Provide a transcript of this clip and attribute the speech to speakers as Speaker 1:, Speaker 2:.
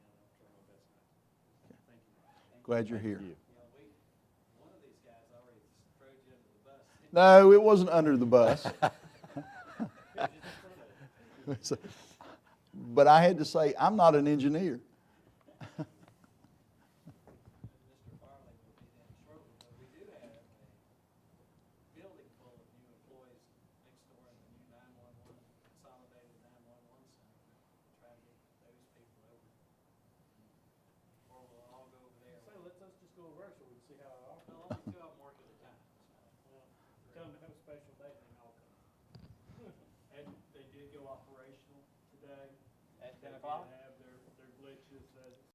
Speaker 1: Glad you're here.
Speaker 2: you.
Speaker 3: You know, we, one of these guys already threw you under the bus.
Speaker 1: No, it wasn't under the bus. But I had to say, I'm not an engineer.
Speaker 3: Mr. Farley will be down shortly, but we do have a building full of new employees next door in the new nine-one-one, consolidated nine-one-one center. Try to get those people over. Or we'll all go over there.
Speaker 4: Say, let us just go over so we can see how it all,
Speaker 3: Well, only two of them work at a time.
Speaker 4: well, come to have a special day, then I'll come. And they did go operational today.
Speaker 3: At ten
Speaker 4: They did
Speaker 3: o'clock?
Speaker 4: have uh,